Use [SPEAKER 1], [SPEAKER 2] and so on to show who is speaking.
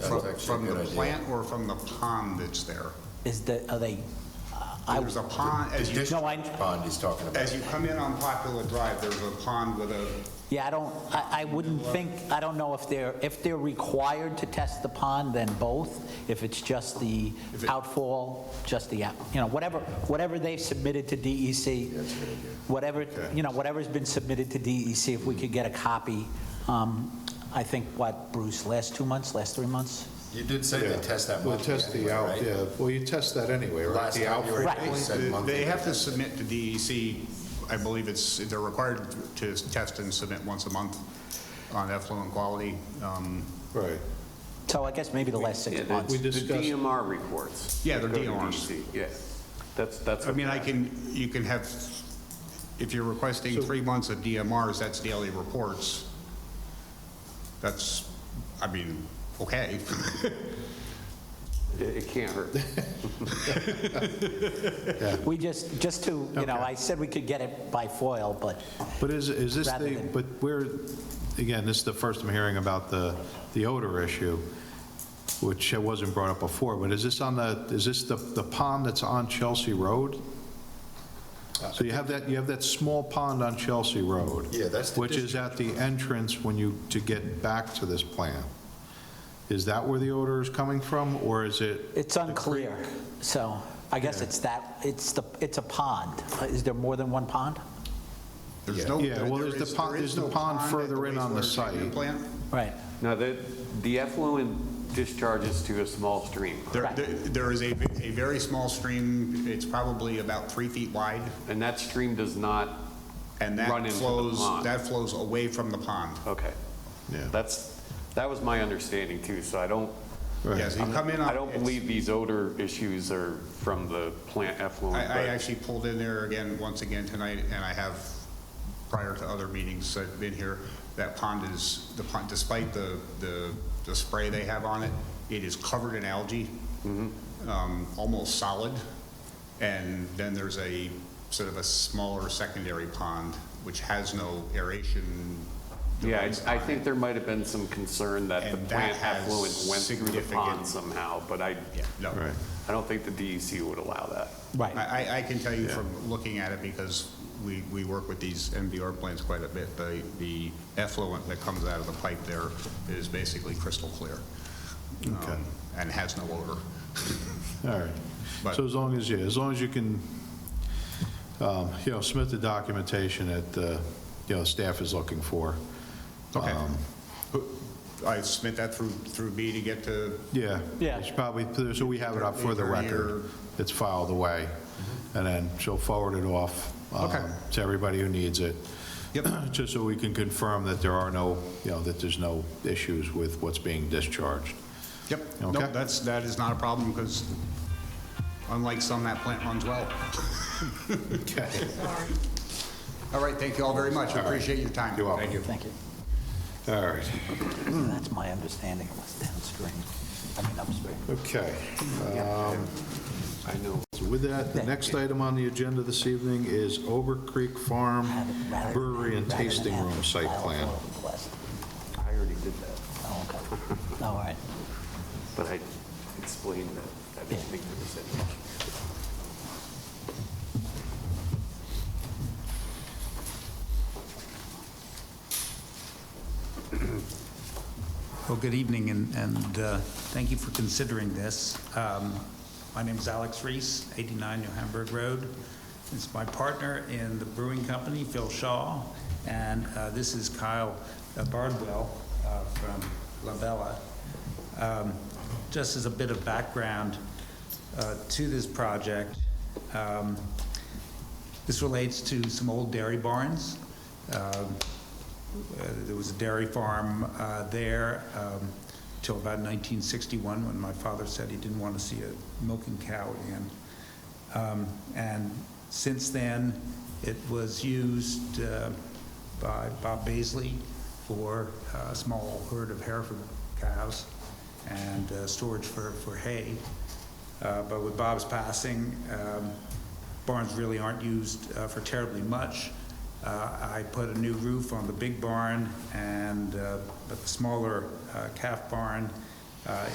[SPEAKER 1] actually
[SPEAKER 2] From
[SPEAKER 1] a
[SPEAKER 2] the
[SPEAKER 1] good idea.
[SPEAKER 2] plant or from the pond that's there?
[SPEAKER 3] Is the, are they, I,
[SPEAKER 2] There's a pond,
[SPEAKER 1] The
[SPEAKER 2] as you,
[SPEAKER 3] No, I-
[SPEAKER 1] district pond he's talking about.
[SPEAKER 2] as you come in on Popular Drive, there's a pond with a,
[SPEAKER 3] yeah, I don't, I, I wouldn't think, I don't know if they're, if they're required to test the pond, then both. If it's just the outfall, just the, out- you know, whatever, whatever they've submitted to DEC, whatever, you know, whatever's been submitted to DEC, if we could get a copy, um, I think, what, Bruce, last two months, last three months?
[SPEAKER 1] You did say they test that
[SPEAKER 4] We'll
[SPEAKER 1] monthly
[SPEAKER 4] test the
[SPEAKER 1] anyway,
[SPEAKER 4] out,
[SPEAKER 1] right?
[SPEAKER 4] yeah, well, you test that anyway, right?
[SPEAKER 1] Last
[SPEAKER 4] The
[SPEAKER 1] time
[SPEAKER 4] out-
[SPEAKER 1] you were
[SPEAKER 3] Right.
[SPEAKER 1] here, you said monthly.
[SPEAKER 2] they have to submit to DEC, I believe it's, they're required to test and submit once a month on effluent quality. Um,
[SPEAKER 4] Right,
[SPEAKER 3] So I guess maybe the last
[SPEAKER 5] Yeah,
[SPEAKER 3] six
[SPEAKER 5] the-
[SPEAKER 3] months.
[SPEAKER 4] We
[SPEAKER 5] The
[SPEAKER 4] discussed-
[SPEAKER 5] DMR reports.
[SPEAKER 2] Yeah, they're
[SPEAKER 5] Go to
[SPEAKER 2] DMRs.
[SPEAKER 5] DC, Yeah, that's, that's.
[SPEAKER 2] I mean, I can, you can have, if you're requesting three months of DMRs, that's daily reports. That's, I mean, okay.
[SPEAKER 5] It it can't hurt.
[SPEAKER 3] We just, just to, you know, I said we could get it by foil, but
[SPEAKER 4] but is, is this
[SPEAKER 3] Rather
[SPEAKER 4] the,
[SPEAKER 3] than-
[SPEAKER 4] but we're, again, this is the first I'm hearing about the, the odor issue, which wasn't brought up before, but is this on the, is this the, the pond that's on Chelsea Road? So you have that, you have that small pond on Chelsea Road.
[SPEAKER 1] Yeah, that's the
[SPEAKER 4] Which is at the entrance when you, to get back to this plant. Is that where the odor is coming from, or is it
[SPEAKER 3] it's unclear. So I guess it's that, it's the, it's a pond. Uh, Is there more than one pond?
[SPEAKER 2] There's no.
[SPEAKER 4] Yeah, well,
[SPEAKER 2] there
[SPEAKER 4] there's the
[SPEAKER 2] is-
[SPEAKER 4] pond-
[SPEAKER 2] there is
[SPEAKER 4] there's the
[SPEAKER 2] no
[SPEAKER 4] pond
[SPEAKER 2] at
[SPEAKER 4] further in on the
[SPEAKER 2] wastewater
[SPEAKER 4] site.
[SPEAKER 2] treatment plant.
[SPEAKER 3] Right.
[SPEAKER 5] Now, the, the effluent discharges to a small stream,
[SPEAKER 2] There, there- there is a, a very small stream, it's probably about three feet wide,
[SPEAKER 5] and that stream does not,
[SPEAKER 2] and
[SPEAKER 5] Run
[SPEAKER 2] that
[SPEAKER 5] into the
[SPEAKER 2] flows,
[SPEAKER 5] pond.
[SPEAKER 2] that flows away from the pond.
[SPEAKER 5] okay.
[SPEAKER 4] Yeah.
[SPEAKER 5] That's, that was my understanding too, so I don't,
[SPEAKER 2] Yes, you come in on.
[SPEAKER 5] I don't
[SPEAKER 2] it's-
[SPEAKER 5] believe these odor issues are from the plant effluent.
[SPEAKER 2] I, I
[SPEAKER 5] but-
[SPEAKER 2] actually pulled in there again, once again tonight, and I have, prior to other meetings, I've been here, that pond is, the pond, despite the, the, the spray they have on it, it is covered in algae,
[SPEAKER 5] Mm-hmm.
[SPEAKER 2] um, almost solid, and then there's a, sort of a smaller secondary pond, which has no aeration.
[SPEAKER 5] Yeah,
[SPEAKER 2] device
[SPEAKER 5] I I
[SPEAKER 2] on
[SPEAKER 5] think
[SPEAKER 2] it.
[SPEAKER 5] there might have been some concern that the
[SPEAKER 2] And that
[SPEAKER 5] plant
[SPEAKER 2] has
[SPEAKER 5] effluent went through the
[SPEAKER 2] significant-
[SPEAKER 5] pond somehow, but I,
[SPEAKER 2] Yeah, no.
[SPEAKER 4] Right.
[SPEAKER 5] I don't think the DEC would allow that.
[SPEAKER 3] Right.
[SPEAKER 2] I, I- I can tell you from looking at it, because we, we work with these MDR plants quite a bit, the, the effluent that comes out of the pipe there is basically crystal clear. um,
[SPEAKER 4] Okay.
[SPEAKER 2] And has no odor.
[SPEAKER 4] All right.
[SPEAKER 2] But-
[SPEAKER 4] So as long as, yeah, as long as you can, um, you know, submit the documentation that, uh, you know, staff is looking for.
[SPEAKER 2] Okay.
[SPEAKER 4] Um,
[SPEAKER 2] I submit that through, through B to get to,
[SPEAKER 4] Yeah.
[SPEAKER 3] Yeah.
[SPEAKER 4] It's probably, so we have it up for the
[SPEAKER 2] Attorney
[SPEAKER 4] record. It's filed away, and then she'll forward it off um,
[SPEAKER 2] Mm-hmm. Okay.
[SPEAKER 4] to everybody who needs it.
[SPEAKER 2] Yep.
[SPEAKER 4] Just so we can confirm that there are no, you know, that there's no issues with what's being discharged.
[SPEAKER 2] yep. No,
[SPEAKER 4] Okay.
[SPEAKER 2] that's, that is not a problem, because unlike some, that plant runs well.
[SPEAKER 4] Okay.
[SPEAKER 2] All right, thank you all very much, I appreciate your time.
[SPEAKER 4] You're welcome.
[SPEAKER 2] Thank you.
[SPEAKER 3] Thank you.
[SPEAKER 4] All right. Hmm.
[SPEAKER 3] That's my understanding of what's downstream. I mean upstream.
[SPEAKER 4] Okay. um,
[SPEAKER 5] I know.
[SPEAKER 4] So With that, the next item on the agenda this evening is Ober Creek Farm
[SPEAKER 3] Rather-
[SPEAKER 4] Brewery and
[SPEAKER 3] rather than
[SPEAKER 4] Tasting
[SPEAKER 3] have
[SPEAKER 4] Room
[SPEAKER 3] to
[SPEAKER 4] Site
[SPEAKER 3] file a
[SPEAKER 4] Plan.
[SPEAKER 3] FOIL request.
[SPEAKER 5] I already did that,
[SPEAKER 3] Oh, okay. All right.
[SPEAKER 5] but I explained that I didn't
[SPEAKER 3] Yeah.
[SPEAKER 5] think there was any issue.
[SPEAKER 6] Well, good evening, and- and uh, thank you for considering this. Um, My name is Alex Reese, 89 New Hamburg Road. It's my partner in the brewing company, Phil Shaw, and uh, this is Kyle Bardwell uh, from Labella. Um, Just as a bit of background uh, to this project, um, this relates to some old dairy barns. Um, uh, There was a dairy farm uh, there um, till about 1961, when my father said he didn't want to see a milking cow again. Um, And since then, it was used uh, by Bob Baisley for uh, a small herd of Hereford cows and uh, storage for for hay. Uh, But with Bob's passing, um, barns really aren't used uh, for terribly much. Uh, I put a new roof on the big barn and uh, but the smaller uh, calf barn uh,